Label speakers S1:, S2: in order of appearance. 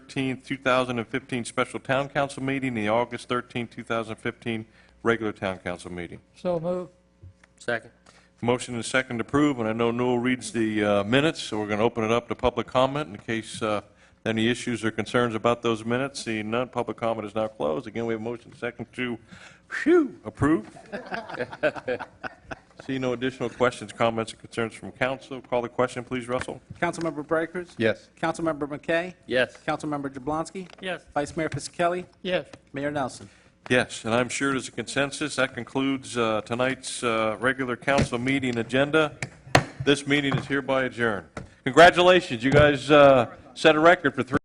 S1: 13, 2015 special town council meeting, the August 13, 2015 regular town council meeting.
S2: So move.
S3: Second.
S1: Motion and second to approve, and I know Noel reads the uh, minutes, so we're going to open it up to public comment in case uh, any issues or concerns about those minutes. Seeing none, public comment is now closed. Again, we have motion and second to, phew, approve. See no additional questions, comments, or concerns from council. Call the question, please, Russell.
S4: Councilmember Brighters?
S5: Yes.
S4: Councilmember McKay?
S3: Yes.
S4: Councilmember Jablonski?
S2: Yes.
S4: Vice Mayor Fisickelli?
S2: Yes.
S4: Mayor Nelson?
S1: Yes, and I'm sure there's a consensus. That concludes uh, tonight's uh, regular council meeting agenda. This meeting is hereby adjourned. Congratulations, you guys uh, set a record for three.